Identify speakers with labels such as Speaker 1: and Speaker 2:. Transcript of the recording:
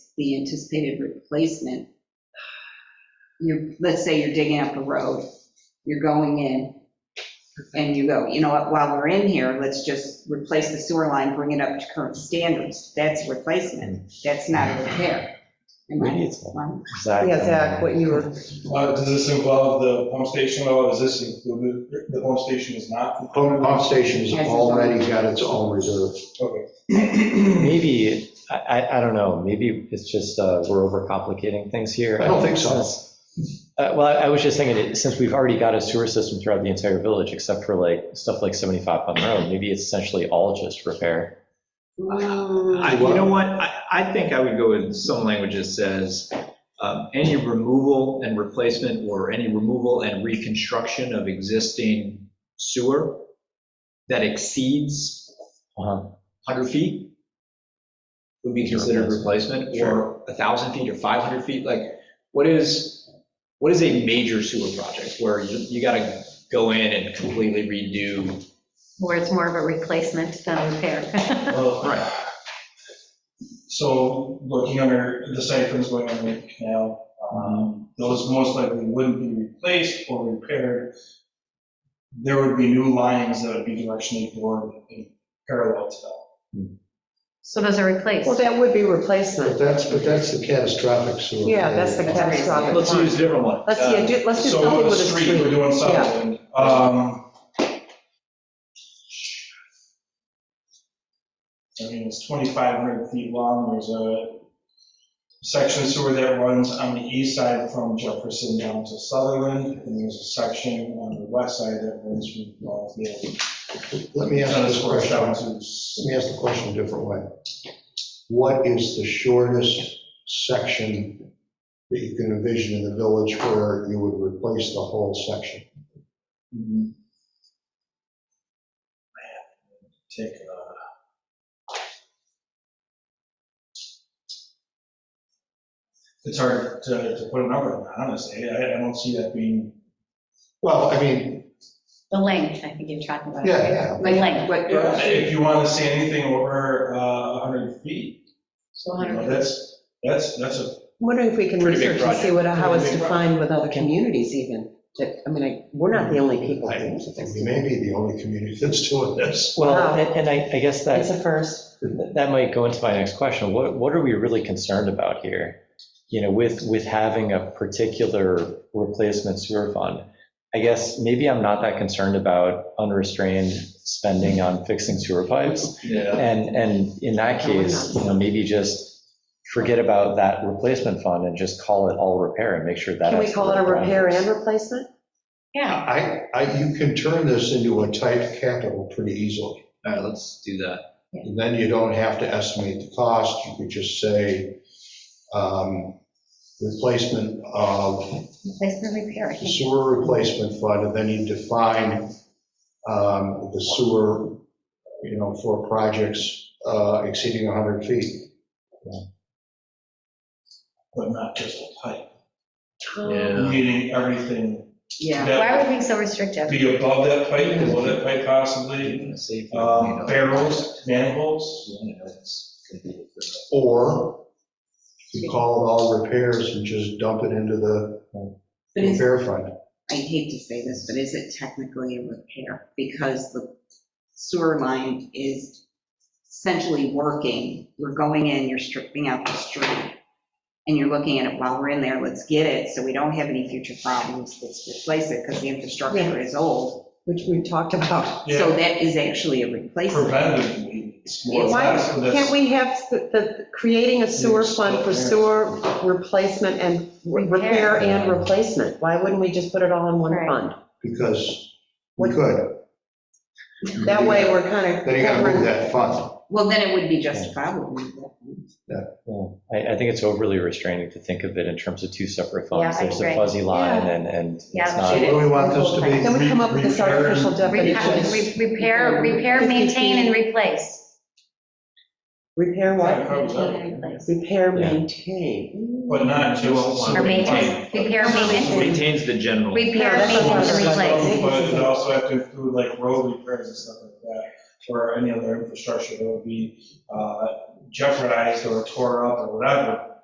Speaker 1: is the anticipated replacement. You're, let's say you're digging up a road, you're going in, and you go, you know what, while we're in here, let's just replace the sewer line, bring it up to current standards. That's replacement, that's not a repair. Am I wrong?
Speaker 2: Yeah, Zach, what you were,
Speaker 3: Uh, Does this involve the pump station, or is this included? The pump station is not?
Speaker 4: Pump pump station's
Speaker 1: Has its own.
Speaker 4: already got its own reserve.
Speaker 3: Okay.
Speaker 5: Maybe, I, I, I don't know, maybe it's just, uh, we're overcomplicating things here.
Speaker 4: I don't think so.
Speaker 5: Uh, well, I I was just thinking, it- since we've already got a sewer system throughout the entire village, except for like, stuff like 75 Putnam Road, maybe it's essentially all just repair.
Speaker 6: I- You know what, I, I think I would go with some language that says, um, any removal and replacement, or any removal and reconstruction of existing sewer that exceeds
Speaker 5: Uh-huh.
Speaker 6: 100 feet would be considered replacement, or 1,000 feet or 500 feet, like, what is, what is a major sewer project where you, you gotta go in and completely redo?
Speaker 7: where it's more of a replacement than repair.
Speaker 3: Well, Uh, So looking under the siphons going under the canal, um, those most likely wouldn't be replaced or repaired. There would be new lines that would be directionally bored and parallel to that.
Speaker 7: So those are replaced.
Speaker 2: well, that would be
Speaker 4: But
Speaker 2: replacement.
Speaker 4: that's, but that's the catastrophic sewer.
Speaker 2: Yeah, that's the catastrophic
Speaker 6: Let's
Speaker 2: one.
Speaker 6: use a different one.
Speaker 2: Let's, yeah, do- let's do
Speaker 3: uh, So
Speaker 2: something
Speaker 3: on the
Speaker 2: with a
Speaker 3: street, we're
Speaker 2: street.
Speaker 3: doing something. Um, I mean, it's 2,500 feet long, there's a section of sewer that runs on the east side from Jefferson down to Sutherland, and there's a section on the west side that runs from Ballfield.
Speaker 4: Let me ask this question,
Speaker 3: down
Speaker 4: let
Speaker 3: to.
Speaker 4: me ask the question a different way. What is the shortest section that you can envision in the village where you would replace the whole section?
Speaker 3: Take, uh, It's hard to, to put a number on, that, honestly, I, I don't see that being,
Speaker 4: Well, I mean,
Speaker 7: The length, I think you're talking about.
Speaker 4: yeah,
Speaker 7: The length.
Speaker 1: But-
Speaker 3: if you want to see anything over uh, 100 feet,
Speaker 1: So
Speaker 3: you know, that's, that's, that's a,
Speaker 2: Wondering if we can
Speaker 6: Pretty big
Speaker 2: research and see what, how
Speaker 3: Pretty
Speaker 2: it's
Speaker 3: big
Speaker 2: defined with other communities even. That, I mean, I- we're not the only people.
Speaker 4: I
Speaker 2: doing
Speaker 4: yeah,
Speaker 2: this.
Speaker 4: we may be the only community that's doing this.
Speaker 2: Wow.
Speaker 5: Well, and and I, I guess
Speaker 2: It's
Speaker 5: that,
Speaker 2: a first.
Speaker 5: that might go into my next question. What, what are we really concerned about here? You know, with, with having a particular replacement sewer fund? I guess maybe I'm not that concerned about unrestrained spending on fixing sewer pipes.
Speaker 6: Yeah.
Speaker 5: And, and in that
Speaker 2: No, we're
Speaker 5: case, you know, maybe just forget about that replacement fund and just call it all repair and make sure that.
Speaker 2: Can we call it a repair and replacement?
Speaker 7: Yeah,
Speaker 4: I, I, you can turn this into a tight capital pretty easily.
Speaker 6: All right, let's do that.
Speaker 4: And then you don't have to estimate the cost, you could just say, um, replacement of
Speaker 7: replacement repair, I
Speaker 4: the
Speaker 7: think.
Speaker 4: sewer replacement fund, and then you define, um, the sewer, you know, for projects, uh, exceeding 100 feet.
Speaker 3: but not just a pipe.
Speaker 6: Yeah.
Speaker 3: Meaning everything,
Speaker 1: Yeah.
Speaker 7: Why are
Speaker 3: that
Speaker 7: we being so restrictive?
Speaker 3: would be above that pipe, below that pipe possibly, um, barrels, manholes.
Speaker 4: Or you call it all repairs and just dump it into the
Speaker 1: But is-
Speaker 4: repair fund.
Speaker 1: I hate to say this, but is it technically a repair? Because the sewer line is essentially working. We're going in, you're stripping out the street, and you're looking at it while we're in there, let's get it, so we don't have any future problems, let's replace it, because the infrastructure is old.
Speaker 2: Which we talked about.
Speaker 1: So
Speaker 3: Yeah,
Speaker 1: that is actually a replacement.
Speaker 3: preventative maintenance, more or
Speaker 2: Why
Speaker 3: less, and that's-
Speaker 2: can't we have the, the- creating a sewer fund for sewer replacement and repair and replacement? Why wouldn't we just put it all in one
Speaker 7: Right.
Speaker 2: fund?
Speaker 4: Because we could.
Speaker 2: That way, we're kind of.
Speaker 4: Then you gotta move that fund.
Speaker 1: Well, then it would be justifiable.
Speaker 5: I, I think it's overly restraining to think of it in terms of two separate funds.
Speaker 7: Yeah, I
Speaker 5: There's a
Speaker 7: agree.
Speaker 5: fuzzy line and, and it's
Speaker 7: Yeah,
Speaker 5: not.
Speaker 7: it
Speaker 4: What do we want this to be?
Speaker 2: Then we come up with this artificial
Speaker 7: Repair,
Speaker 2: definition.
Speaker 7: re- Repair, repair, maintain, and replace.
Speaker 2: Repair
Speaker 3: Yeah,
Speaker 2: what?
Speaker 3: probably
Speaker 7: Maintain
Speaker 3: so.
Speaker 7: and replace.
Speaker 2: Repair,
Speaker 5: Yeah.
Speaker 2: maintain.
Speaker 3: But not just.
Speaker 6: You won't want-
Speaker 7: Or maintenance, repair, maintenance,
Speaker 6: Maintains the general.
Speaker 7: repair,
Speaker 2: Yeah, that's what
Speaker 7: maintenance, and
Speaker 2: I'm talking
Speaker 7: replace.
Speaker 2: replace.
Speaker 3: But it also have to include like road repairs and stuff like that, or any other infrastructure that would be uh, jeopardized or tore up or whatever.